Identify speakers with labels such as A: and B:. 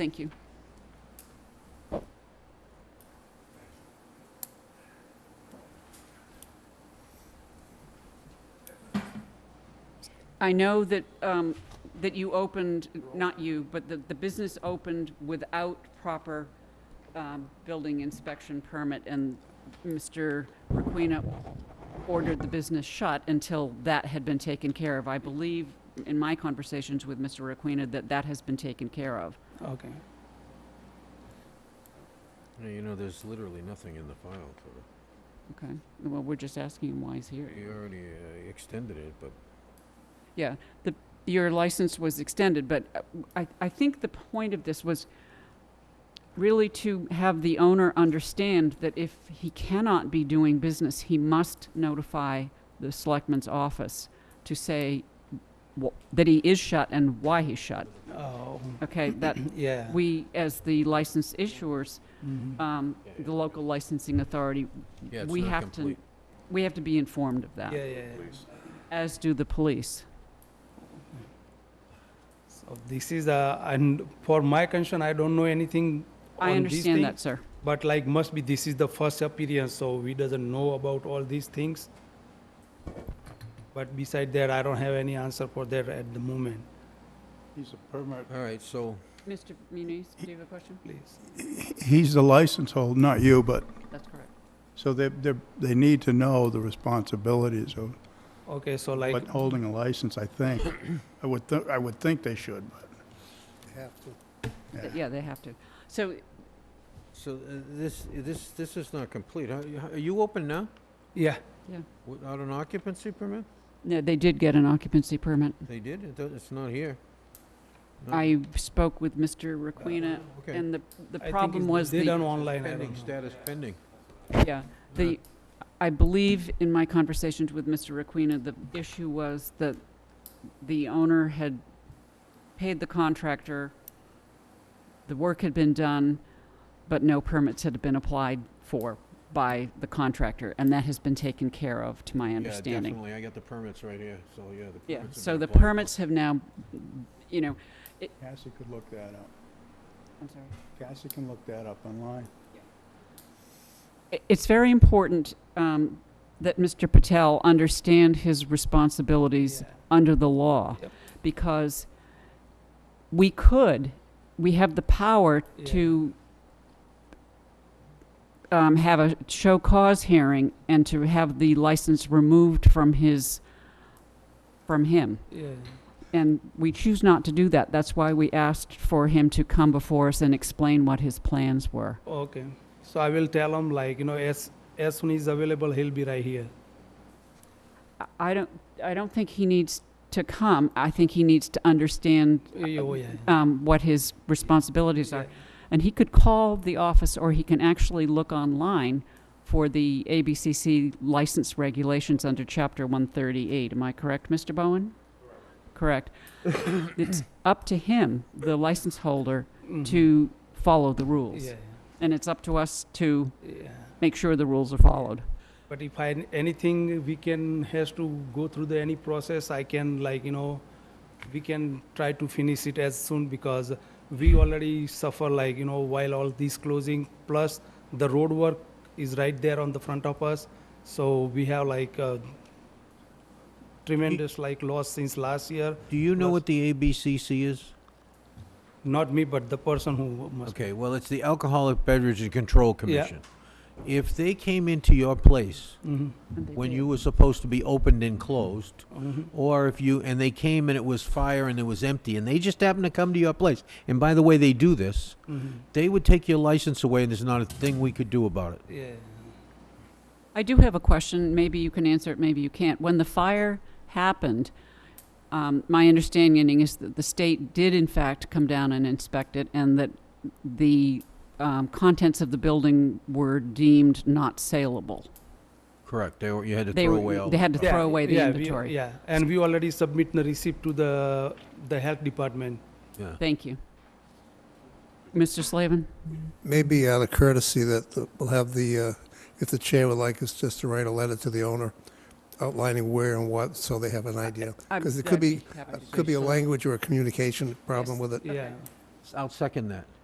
A: Thank you. I know that, um, that you opened, not you, but the, the business opened without proper, um, building inspection permit, and Mr. Requena ordered the business shut until that had been taken care of. I believe, in my conversations with Mr. Requena, that that has been taken care of.
B: Okay.
C: Yeah, Uh, you know, there's literally nothing in the file for
A: Okay, well, we're just asking him why he's here.
C: it. You already uh, extended it, but
A: Yeah, the, your license was extended, but uh, I, I think the point of this was really to have the owner understand that if he cannot be doing business, he must notify the selectman's office to say wh- that he is shut and why he's shut.
B: Oh,
A: Okay, that,
B: yeah.
A: we, as the license issuers,
B: Mhm.
A: um,
C: Yeah, yeah.
A: the local licensing authority,
C: yeah, it's
A: we
C: not
A: have to,
C: complete.
A: we have to be informed of
B: Yeah,
A: that,
B: yeah. yeah.
C: Please.
A: as do the police.
B: So this is uh, and for my concern, I don't know anything.
A: I
B: on these
A: understand that,
B: things,
A: sir.
B: But like, must be this is the first appearance, so we doesn't know about all these things. But beside that, I don't have any answer for that at the moment,
D: He's a permit.
C: All right, so
A: Mr. Muniz, do you have a question?
B: please.
D: He's the license holder, not you, but,
A: That's correct.
D: so they, they, they need to know the responsibilities of,
B: Okay, so like,
D: but holding a license, I think. I would, thi- I would think they should, but.
A: Yeah, they have to. So,
C: so uh, this this this is not complete. Are, you- are you open now
B: yeah,
C: without an occupancy permit?
A: no, they did get an occupancy permit.
C: They did. It does, it's not here. No.
A: I spoke with Mr. Requena,
C: Uh, okay.
A: and the, the
B: I think
A: problem
B: it's-
A: was
B: they done
A: the,
B: online. I don't
C: pending
B: know.
C: status pending.
A: yeah, the, I believe in my conversations with Mr. Requena, the issue was that the owner had paid the contractor, the work had been done, but no permits had been applied for by the contractor, and that has been taken care of, to my
C: Yeah,
A: understanding.
C: definitely. I got the permits right here. So yeah, the permits.
A: Yeah,
C: have
A: so
C: been
A: the
C: applied for.
A: permits have now, you know,
D: Cassie could look that up.
A: I'm sorry.
D: Cassie can look that up online.
A: I- It's very important um, that Mr. Patel understand his responsibilities
B: Yeah.
A: under the law,
B: Yep.
A: because we could, we have the power
B: Yeah.
A: to um, have a show cause hearing and to have the license removed from his, from him.
B: Yeah,
A: And we choose not to do that. That's why we asked for him to come before us and explain what his plans were.
B: okay. So I will tell him like, you know, as, as soon as available, he'll be right here.
A: I- I don't, I don't think he needs to come. I think he needs to understand
B: Yeah, Oh, yeah.
A: um, what his responsibilities
B: Yeah.
A: are. And he could call the office, or he can actually look online for the ABCC license regulations under Chapter 138. Am I correct, Mr. Bowen? Correct. It's up to him, the license holder,
B: Mhm.
A: to follow the rules.
B: Yeah,
A: And it's up to us to
B: yeah.
A: make sure the rules are followed.
B: But if I, anything, we can, has to go through the, any process, I can like, you know, we can try to finish it as soon because we already suffer like, you know, while all these closing, plus the road work is right there on the front of us. So we have like uh, tremendous like loss since last year.
C: Do you know
B: Plus-
C: what the ABCC is?
B: Not me, but the person who must.
C: Okay, well, it's the Alcoholic Beverage and Control
B: Yeah.
C: Commission. If they came into your place
B: Mhm,
A: And they
C: when
A: did.
C: you were supposed to be opened and closed,
B: mhm.
C: or if you and they came and it was fire and it was empty and they just happened to come to your place and by the way they do this
B: Mhm.
C: they would take your license away and there's not a thing we could do about it
B: Yeah.
A: I do have a question. Maybe you can answer it, maybe you can't. When the fire happened, um, my understanding is that the state did, in fact, come down and inspect it, and that the um, contents of the building were deemed not saleable.
C: correct they were, you had to
A: They
C: throw
A: were-
C: away all
A: they had
C: the
A: to
C: stuff.
A: throw away the
B: Yeah, we-
A: inventory.
B: Yeah, and we already submit the receipt to the, the health department.
C: yeah.
A: Thank you. Mr. Slavin?
E: maybe out of courtesy that the- we'll have the, uh, if the chair would like us just to write a letter to the owner outlining where and what, so they have an idea.
A: I-
E: Because it
A: I'd
E: could be,
A: happy to do
E: could be a
A: so.
E: language or a communication problem with it.
B: Yeah.
C: I'll second that.